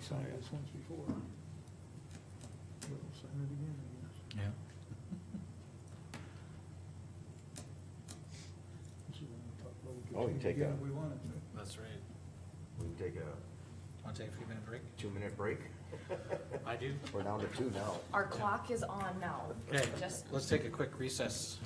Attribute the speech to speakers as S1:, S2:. S1: signed this once before. We'll sign it again, I guess.
S2: Yeah.
S1: This is when we talk about we could
S3: Oh, you
S1: change
S3: take
S1: again
S3: a-
S1: If we wanted to.
S2: That's right.
S3: We can take a
S2: Want to take a few minute break?
S3: two-minute break?
S2: I do.
S3: We're down to two now.
S4: Our clock is on now.
S2: Okay,
S4: Just,
S2: let's take a quick recess.